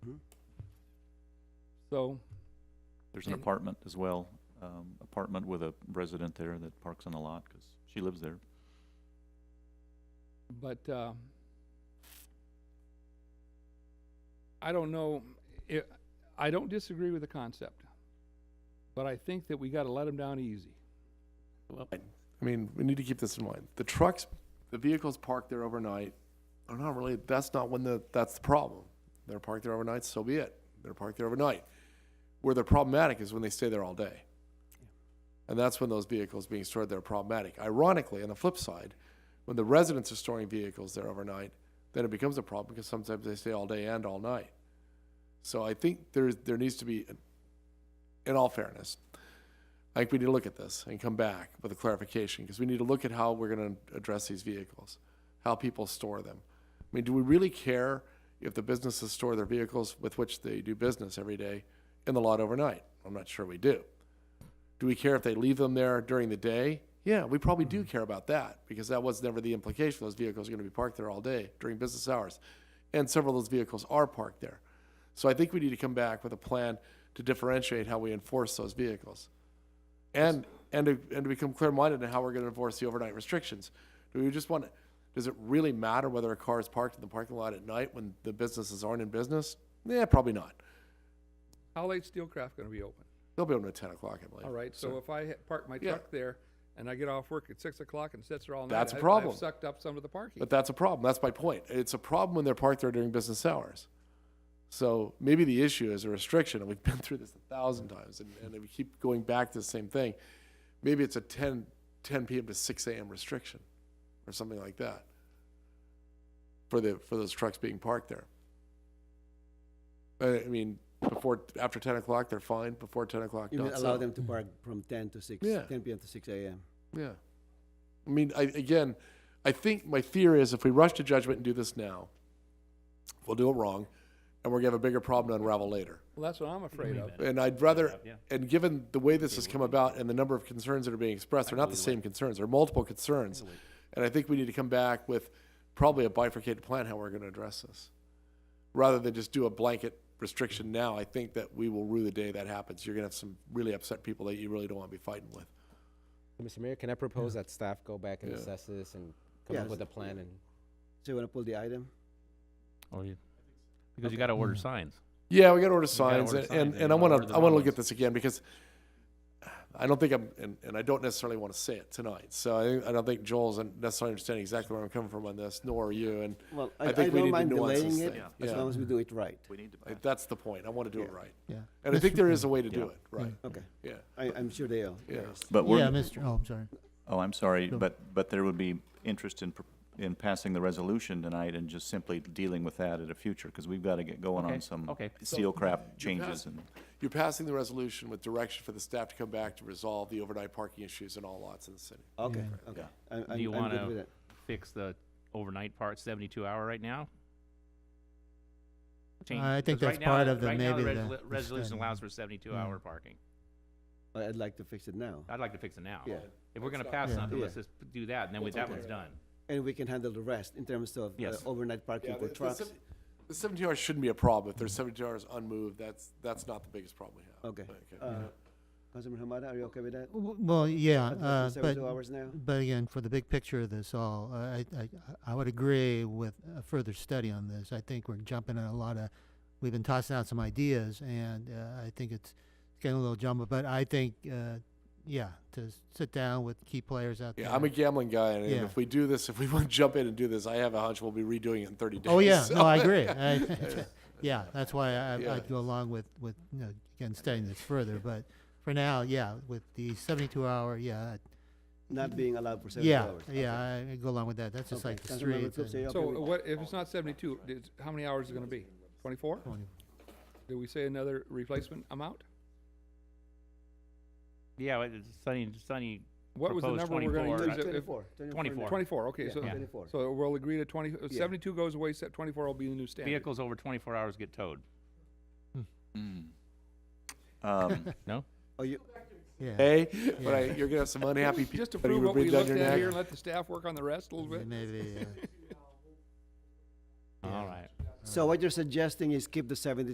So, There's an And- apartment as well, um, apartment with a resident there that parks on the lot, cause she lives there. but, uh, I don't know, i I don't disagree with the concept, but I think that we gotta let them down easy. I mean, we need to keep this in mind. The trucks, the vehicles parked there overnight are not really, that's not when the, that's the problem. They're parked there overnight, so be it. They're parked there overnight. Where they're problematic is when they stay there all day. And that's when those vehicles being stored there are problematic. Ironically, on the flip side, when the residents are storing vehicles there overnight, then it becomes a problem because sometimes they stay all day and all night. So I think there's, there needs to be, in all fairness, I think we need to look at this and come back with a clarification, because we need to look at how we're gonna address these vehicles, how people store them. I mean, do we really care if the businesses store their vehicles with which they do business every day in the lot overnight? I'm not sure we do. Do we care if they leave them there during the day? Yeah, we probably do care about that, because that was never the implication, those vehicles are gonna be parked there all day during business hours. And several of those vehicles are parked there. So I think we need to come back with a plan to differentiate how we enforce those vehicles. And, and to, and to become clear-minded in how we're gonna enforce the overnight restrictions. Do we just want, does it really matter whether a car is parked in the parking lot at night when the businesses aren't in business? Yeah, probably not. How late's Steelcraft gonna be open? They'll be open at ten o'clock, I believe. All right, so if I ha- park my Yeah. truck there and I get off work at six o'clock and sits there all night. That's a I- I've problem. Sucked up some of the parking. But that's a problem. That's my point. It's a problem when they're parked there during business hours. So maybe the issue is a restriction, and we've been through this a thousand times, and, and we keep going back to the same thing. Maybe it's a 10, 10 p.m. to 6 a.m. restriction or something like that for the for those trucks being parked there. Uh, I mean, before after 10 o'clock, they're fine. Before 10 o'clock, You mean not allow so. them to park from ten to six, Yeah. ten PM to six AM? Yeah. I mean, I, again, I think my fear is if we rush to judgment and do this now, we'll do it wrong and we're going to have a bigger problem to unravel later. Well, that's what I'm afraid of. And I'd rather, and given the way this has come about and the number of concerns that are being expressed, they're not the same concerns, they're multiple concerns. And I think we need to come back with probably a bifurcated plan how we're going to address this. Rather than just do a blanket restriction now, I think that we will rue the day that happens. You're going to have some really upset people that you really don't want to be fighting with. Mr. Mayor, can I propose that staff go back and Yeah. assess this and come up Yes. with a plan and? So you wanna pull the item? Or you, Oh, because you gotta order signs. Yeah, we got to order gotta signs, order and, signs, and, and and I you gotta want order to the I want to wrong look at ones. this again because I don't think I'm and, and I don't necessarily want to say it tonight. So I, I don't think Joel's necessarily understanding exactly where I'm coming from on this, nor are you. And Well, I I, I think we don't need to mind nuance this delaying it, thing. as Yeah. long as we do it right. We need to I- that's the point. I want to do it Yeah. right, Yeah. and I think Mr. there is a way to do it right. Okay, Yeah, I, I'm sure they are. yeah. But Yeah, we're, Mr., oh, I'm sorry. oh, I'm sorry, Sure. but, but there would be interest in, pr- in passing the resolution tonight and just simply dealing with that at a future, cause we've gotta get going Okay, on some okay. seal crap changes passed- and, You're passing the resolution with direction for the staff to come back to resolve the overnight parking issues in all lots in the city. Okay, Yeah. okay. Yeah. I- I'm, Do you I'm good with wanna it. fix the overnight part, seventy-two hour right now? Change- I think 'cause that's right now part the- of the right now maybe resolu- the- the Resolution study. allows for seventy-two Yeah. hour parking. But I'd like to fix it now. Ah, I'd like to fix it now. Yeah. If we're gonna pass Yeah. something, Yeah. let's just do that, and then we- that one's done. And we can handle the rest in terms of uh, Yes. overnight parking for the, trucks. seventy hours shouldn't be a problem. If there's seventy hours unmoved, that's that's not the biggest problem we have. Okay. Uh, Councilman Hamada, are you okay with that? W- Well, yeah, Let's do uh, but, Seventy-two hours now? but again, for the big picture of this all, uh, I, I, I would agree with a further study on this. I think we're jumping on a lot of, we've been tossing out some ideas and, uh, I think it's getting a little jumbled, but I think, uh, yeah, to s- sit down with key players out there. Yeah, I'm a gambling guy, and Yeah. if we do this, if we want to jump in and do this, I have a hunch we'll be redoing it in 30 days. Oh, yeah, so- no, I agree. I- Yeah, that's why I, Yeah. I'd go along with, with, you know, again, studying this further, but for now, yeah, with the seventy-two hour, yeah, Not being allowed for seventy Yeah, hours? yeah, I I go along with that. That's just Okay. like the Councilmember streets. Coops, are and- you okay So with- what, if it's not seventy-two, did- how many hours is it gonna be? Twenty-four? Did we say another replacement amount? Yeah, but it's Sunny, Sunny, What was the Proposed number we're gonna 24. use? if- if- Twenty-four. Twenty-four. Twenty-four, okay, Yeah. so, Yeah. Twenty-four. so we'll agree to twenty, uh, Yeah. seventy-two goes away, set twenty-four will be the new standard. vehicles over twenty-four hours get towed, Mm. um, no? Oh, you, Yeah. Hey, but I, you're gonna have some unhappy people. Just to that you prove what breathe we down looked your at neck. here and let the staff work on the rest a little bit. Maybe, uh, All right. so what you're suggesting is keep the seventy